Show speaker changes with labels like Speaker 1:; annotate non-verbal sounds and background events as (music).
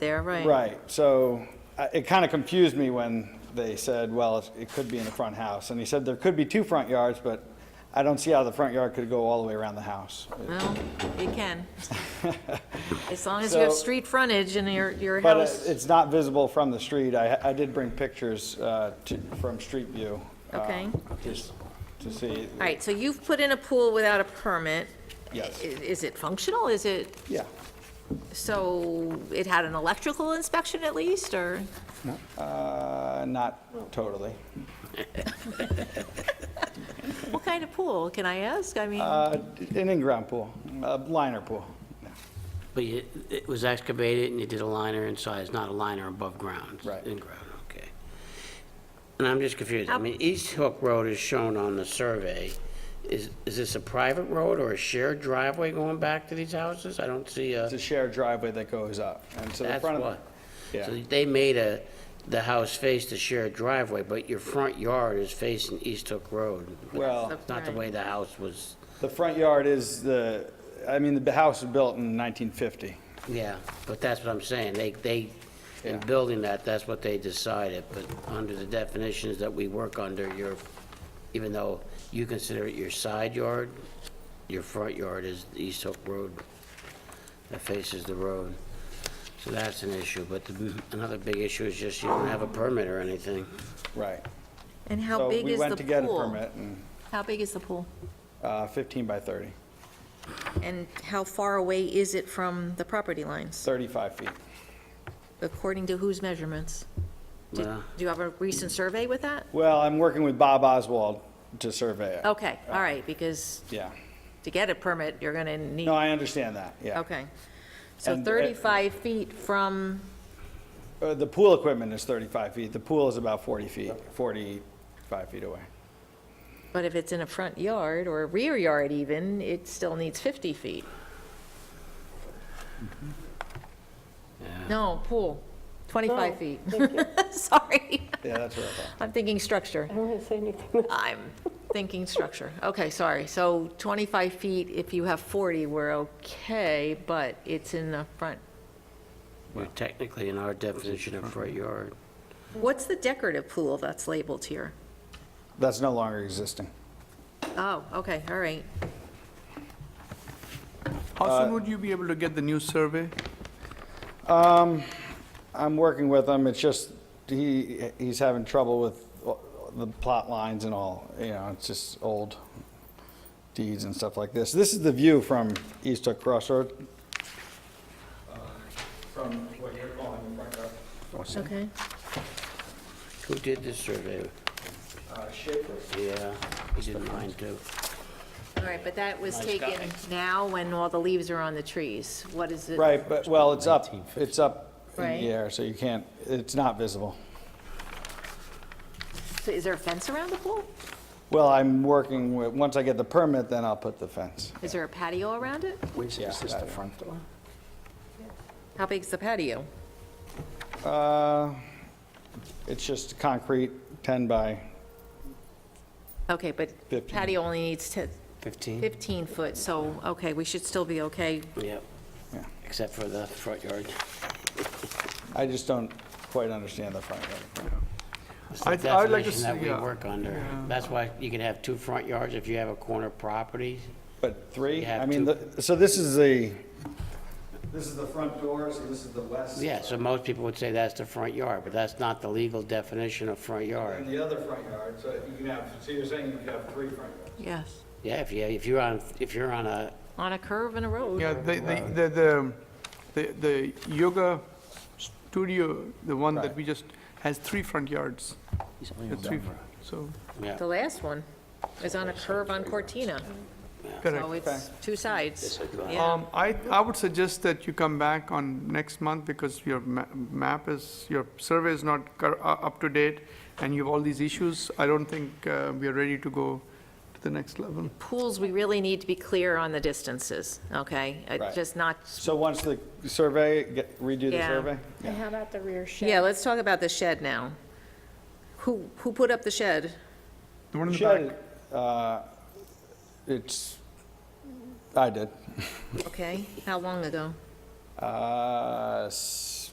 Speaker 1: They're right.
Speaker 2: Right, so I- it kind of confused me when they said, well, it's- it could be in the front house. And he said there could be two front yards, but I don't see how the front yard could go all the way around the house.
Speaker 1: Well, you
Speaker 2: (laughs)
Speaker 1: can. As long as you have
Speaker 2: So-
Speaker 1: street frontage and your, your
Speaker 2: But uh,
Speaker 1: house.
Speaker 2: it- it's not visible from the street. I, I did bring pictures uh, to- from street view. uh,
Speaker 1: Okay.
Speaker 2: Just to see.
Speaker 1: All right, so you've put in a pool without a permit.
Speaker 2: Yes.
Speaker 1: I- Is it functional? Is it,
Speaker 2: Yeah.
Speaker 1: so it had an electrical inspection at least, or?
Speaker 2: Uh, Not totally.
Speaker 1: What kind of pool, can I ask? I mean,
Speaker 2: Uh, An in-ground pool, a liner pool.
Speaker 3: But you- it was excavated and you did a liner inside, it's not a liner above ground? it's
Speaker 2: Right.
Speaker 3: In ground, okay. And I'm just confused, I mean, East Hook Road is shown on the survey. Is, is this a private road or a shared driveway going back to these houses? I don't see a,
Speaker 2: It's a shared driveway that goes up. And so the
Speaker 3: that's
Speaker 2: front of.
Speaker 3: what.
Speaker 2: Yeah.
Speaker 3: So they made a, the house face the shared driveway, but your front yard is facing East Hook Road.
Speaker 2: Well-
Speaker 3: It's Not the way the house was,
Speaker 2: The front yard is the, I mean, the house was built in 1950.
Speaker 3: yeah, but that's what I'm saying, they, they, in
Speaker 2: Yeah.
Speaker 3: building that, that's what they decided, but under the definitions that we work under, your, even though you consider it your side yard, your front yard is the East Hook Road that faces the road. So that's an issue, but the- another big issue is just you don't have a permit or anything.
Speaker 2: Right.
Speaker 1: and how big
Speaker 2: So we
Speaker 1: is the
Speaker 2: went to get a
Speaker 1: pool?
Speaker 2: permit, and
Speaker 1: How big is the pool?
Speaker 2: uh, 15 by 30,
Speaker 1: And how far away is it from the property lines,
Speaker 2: 35 feet.
Speaker 1: according to whose measurements? Do
Speaker 3: Well-
Speaker 1: do you have a recent survey with that?
Speaker 2: Well, I'm working with Bob Oswald to survey it.
Speaker 1: Okay, all right, because
Speaker 2: Yeah.
Speaker 1: to get a permit, you're gonna need,
Speaker 2: No, I understand that, yeah.
Speaker 1: okay. So
Speaker 2: And-
Speaker 1: 35 feet from,
Speaker 2: Uh, The pool equipment is 35 feet. The pool is about 40 feet, 45 feet away.
Speaker 1: but if it's in a front yard or a rear yard even, it still needs 50 feet. No, pool, 25 feet. (laughs) Sorry,
Speaker 2: Yeah, that's what I thought.
Speaker 1: I'm thinking structure.
Speaker 4: I don't want to say anything.
Speaker 1: I'm thinking structure. Okay, sorry. So 25 feet, if you have 40, we're okay, but it's in the front.
Speaker 3: We're technically in our definition of front yard.
Speaker 1: What's the decorative pool that's labeled here?
Speaker 2: That's no longer existing.
Speaker 1: Oh, okay, all right.
Speaker 5: How soon would you be able to get the new survey?
Speaker 2: I'm working with him, it's just, he, he's having trouble with the plot lines and all, you know, it's just old deeds and stuff like this. This is the view from East Hook Crossroad. From what you're calling the front yard.
Speaker 1: Okay.
Speaker 3: Who did this survey?
Speaker 2: Uh, Schaefer.
Speaker 3: Yeah, he did mine too.
Speaker 1: All right, but that was
Speaker 3: Nice
Speaker 1: taken
Speaker 3: guy.
Speaker 1: now when all the leaves are on the trees. What is it?
Speaker 2: Right, but, well, it's up, it's up in
Speaker 1: Right.
Speaker 2: the air, so you can't, it's not visible.
Speaker 1: So Is there a fence around the pool?
Speaker 2: Well, I'm working with, once I get the permit, then I'll put the fence.
Speaker 1: Is there a patio around it?
Speaker 2: Is this the front door?
Speaker 1: How big's the patio?
Speaker 2: Uh, it's just concrete, 10 by
Speaker 1: Okay, but
Speaker 2: 15.
Speaker 1: patio only needs to-
Speaker 3: 15?
Speaker 1: 15 foot, so, okay, we should still be okay.
Speaker 3: Yep,
Speaker 2: Yeah.
Speaker 3: except for the front yard.
Speaker 2: I just don't quite understand the front yard.
Speaker 3: It's the
Speaker 5: I'd- I'd like to
Speaker 3: definition that
Speaker 5: see,
Speaker 3: we
Speaker 5: uh,
Speaker 3: work under. That's why you can have two front yards if you have a corner property.
Speaker 2: But three,
Speaker 3: You
Speaker 2: I
Speaker 3: have
Speaker 2: mean,
Speaker 3: two.
Speaker 2: the- so this is the. This is the front door, so this is the west.
Speaker 3: Yeah, so most people would say that's the front yard, but that's not the legal definition of front
Speaker 2: And
Speaker 3: yard.
Speaker 2: the other front yard, so you can have, so you're saying you could have three front yards?
Speaker 1: Yes.
Speaker 3: Yeah, if you, if you're on, if you're on a,
Speaker 1: On a curve and a road.
Speaker 5: Yeah, the, the- the, the, the the yoga studio, the one that we just, has three front yards. The three fr- So,
Speaker 3: yeah,
Speaker 1: The last one is on a curve on Cortina, so
Speaker 5: correct.
Speaker 1: it's two sides. Yeah,
Speaker 5: Um, I, I would suggest that you come back on next month because your ma- map is, your survey is not cor- u- up to date and you have all these issues. I don't think uh, we are ready to go to the next level.
Speaker 1: pools, we really need to be clear on the distances, okay? Uh,
Speaker 2: Right.
Speaker 1: Just not,
Speaker 2: So once the survey, get- redo the
Speaker 1: Yeah.
Speaker 2: survey?
Speaker 6: And how about the rear shed?
Speaker 1: yeah, let's talk about the shed now. Who, who put up the shed?
Speaker 5: The one in the
Speaker 2: Shed,
Speaker 5: back,
Speaker 2: uh, it's, I did,
Speaker 1: Okay, how long ago?
Speaker 2: uh, s-